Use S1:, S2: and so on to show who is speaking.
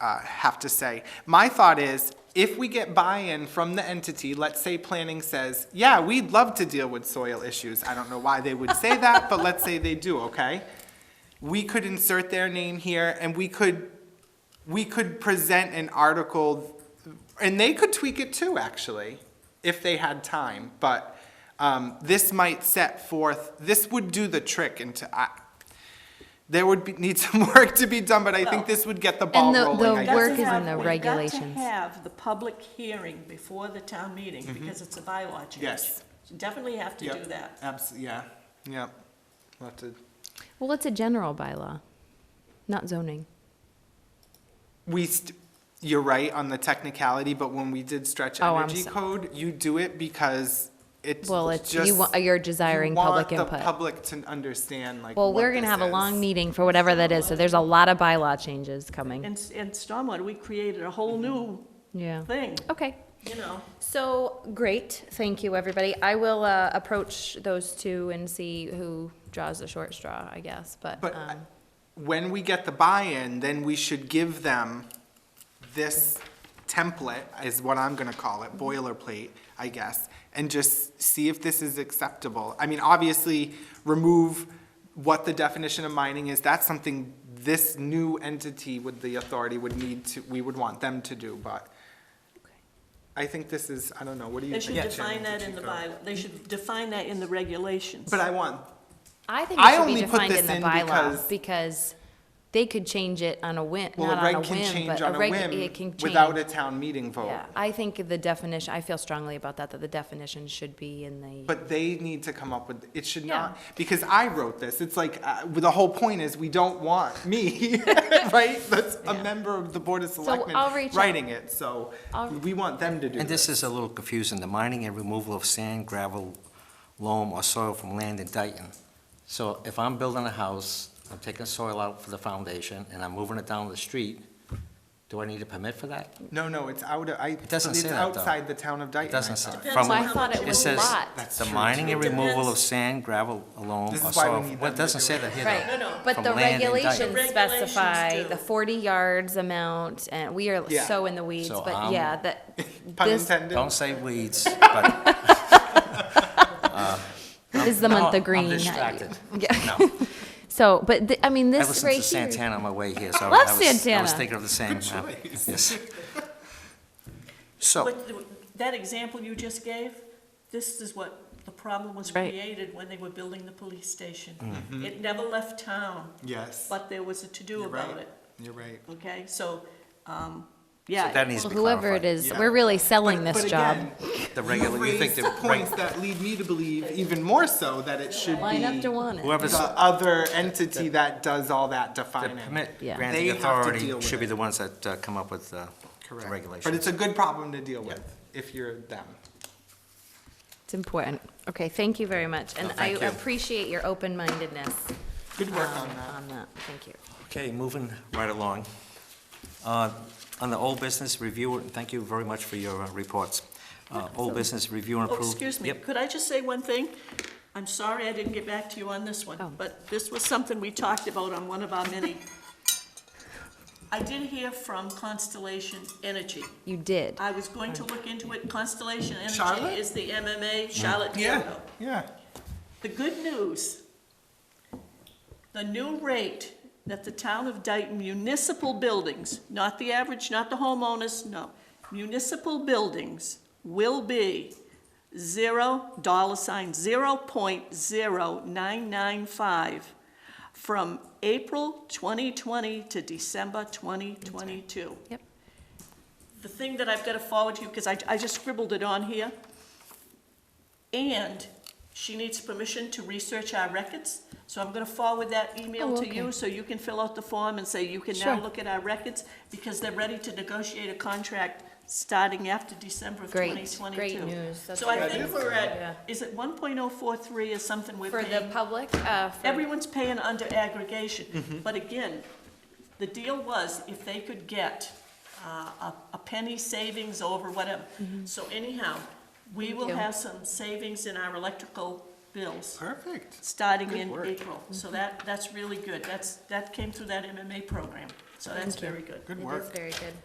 S1: uh, have to say. My thought is, if we get buy-in from the entity, let's say planning says, yeah, we'd love to deal with soil issues. I don't know why they would say that, but let's say they do, okay? We could insert their name here and we could, we could present an article, and they could tweak it too, actually, if they had time, but, um, this might set forth, this would do the trick into, I, there would be, need some work to be done, but I think this would get the ball
S2: And the-
S1: rolling.
S2: the
S1: I guess.
S2: work
S3: We've
S2: is in
S3: got to
S2: the
S3: have- We've
S2: regulations.
S3: got to have the public hearing before the town meeting, because it's a bylaw change.
S1: Mm-hmm. Yes.
S3: You Definitely have to do
S1: Yep,
S3: that.
S1: abso- yeah, yep. We'll have to-
S2: Well, it's a general bylaw, not zoning.
S1: We, st- you're right on the technicality, but when we did stretch
S2: Oh, I'm
S1: energy
S2: so-
S1: code, you do it because it's
S2: Well, it's, you
S1: just-
S2: wa- you're desiring public
S1: You want the
S2: input.
S1: public to understand like
S2: Well,
S1: what
S2: we're gonna
S1: this
S2: have a
S1: is.
S2: long meeting for whatever that is, so there's a lot of bylaw changes coming.
S3: And, and stormwater, we created a whole new
S2: Yeah.
S3: thing,
S2: Okay.
S3: you know?
S2: So, great, thank you, everybody. I will uh, approach those two and see who draws the short straw, I guess, but.
S1: But
S2: um,
S1: I- when we get the buy-in, then we should give them this template, is what I'm gonna call
S2: Mm-hmm.
S1: it, boilerplate, I guess, and just see if this is acceptable. I mean, obviously, remove what the definition of mining is, that's something this new entity with the authority would need to, we would want them to do, but I think this is, I don't know, what do you
S3: They
S1: think?
S3: should define that in the
S1: Chico?
S3: bylaw, they should define that in the regulations.
S1: But I want,
S2: I think
S1: I
S2: it should be
S1: only put
S2: defined
S1: this
S2: in the
S1: in
S2: bylaw
S1: because-
S2: because they could change it on a whim,
S1: well, a
S2: not on a
S1: reg can
S2: whim,
S1: change
S2: but a
S1: on a
S2: reg, it can
S1: whim
S2: change.
S1: without a town meeting vote.
S2: Yeah, I think the definition, I feel strongly about that, that the definition should be in the,
S1: But they need to come up with, it should
S2: Yeah.
S1: not, because I wrote this, it's like, uh, the whole point is, we don't want me, right? That's a member of the Board of Selectmen
S2: I'll reach out.
S1: writing it, so
S2: I'll-
S1: we want them to do
S4: And this
S1: this.
S4: is a little confusing, the mining and removal of sand, gravel, loam, or soil from land in Dayton. So if I'm building a house, I'm taking soil out for the foundation, and I'm moving it down the street, do I need a permit for that?
S1: No, no, it's out, of- I, it's
S4: doesn't say that, though.
S1: outside the town of
S4: It
S1: Dayton, I
S4: doesn't
S1: thought.
S4: say.
S3: Depends
S4: from-
S3: on how much
S2: it was
S4: says
S2: lot.
S1: That's
S4: The
S1: true,
S4: mining
S1: too.
S4: and removal of sand, gravel, loam,
S1: This
S4: or
S1: is why we
S4: soil.
S1: need
S4: Well,
S1: them
S4: it
S1: to
S4: doesn't
S1: do
S4: say
S1: it.
S4: that here.
S2: right,
S3: No, no.
S2: but
S4: From
S2: the
S4: land indictment.
S2: regulations
S3: The regulations
S2: specify
S3: do.
S2: the forty yards amount, and we are
S1: Yeah.
S2: so in the weeds,
S4: So,
S2: but
S4: um,
S2: yeah, that.
S1: Pun
S2: this-
S1: intended.
S4: Don't say weeds, but.
S2: This is the
S4: No,
S2: month of
S4: I'm
S2: green.
S4: distracted.
S2: Yeah.
S4: No.
S2: So, but, the- I mean,
S4: I
S2: this
S4: listened
S2: right
S4: to
S2: here.
S4: Santana on my way here, so I
S2: Love
S4: was, I was
S2: Santana.
S4: thinking of the same. uh, Yes. So,
S3: But the- that example you just gave, this is what, the problem was
S2: Right.
S3: created when they were building the police station. It never left town,
S1: Yes,
S3: but there was a to-do
S1: Mm-hmm. you're
S3: about
S1: right,
S3: it,
S1: you're right.
S3: okay? So, um,
S4: so
S3: yeah,
S4: that needs to be
S2: Whoever it
S4: clarified.
S2: is,
S1: Yeah.
S2: we're really selling
S1: But
S2: this job.
S1: again,
S4: The
S1: You
S4: regular, you think
S1: raised
S4: the. reg-
S1: points that lead me to believe, even more so, that it should be
S2: Line up to want it.
S4: Whoever's
S1: the other entity that does all that
S4: the
S1: defining.
S4: permit
S2: Yeah.
S1: They
S4: granting
S1: have to deal
S4: authority
S1: with
S4: should be
S1: it.
S4: the ones that uh, come up with uh, the
S1: Correct. But
S4: regulations.
S1: it's a good problem to deal with if you're them.
S2: It's important. Okay, thank you very much, and
S4: No,
S2: I
S4: thank you.
S2: appreciate your open-mindedness
S1: Good work on
S2: um,
S1: that.
S2: on that. Thank you.
S4: Okay, moving right along. Uh, On the old business review, and thank you very much for your uh, reports. Uh, Old business review and
S3: oh,
S4: approve.
S3: excuse me,
S4: Yep,
S3: could I just say one thing? I'm sorry I didn't get back to you on this
S2: Oh.
S3: one, but this was something we talked about on one of our many. I did hear from Constellation Energy.
S2: You did.
S3: I was going to look into it. Constellation
S1: Charlotte?
S3: Energy is the MMA, Charlotte Diego.
S1: yeah.
S3: The good news, the new rate that the town of Dayton municipal buildings, not the average, not the homeowners, no, municipal buildings will be zero, dollar sign, zero point zero nine nine five from April twenty twenty to December twenty twenty-two.
S2: Yep.
S3: The thing that I've got to forward to you, because I, I just scribbled it on here, and she needs permission to research our records, so I'm gonna forward that email
S2: Oh,
S3: to you,
S2: okay.
S3: so you can fill out the form and say you can now
S2: Sure.
S3: look at our records, because they're ready to negotiate a contract starting after December of twenty
S2: Great,
S3: twenty-two.
S2: great news. That's
S3: So I
S2: great.
S3: think we're
S2: Yeah.
S3: at, is it one point oh four three or something we're
S2: For the
S3: paying?
S2: public, uh, for.
S3: Everyone's paying under
S1: Mm-hmm.
S3: aggregation, but again, the deal was if they could get uh, a a penny savings over whatever. So anyhow, we will
S2: Mm-hmm. you.
S3: have some savings in our electrical bills,
S1: Perfect.
S3: starting
S1: Good
S3: in
S1: work.
S2: Mm-hmm.
S3: April. So that, that's really good, that's, that came through that MMA program.
S5: So that's
S2: Thank you.
S5: very good.
S3: Good
S2: It is
S3: work.
S2: very good.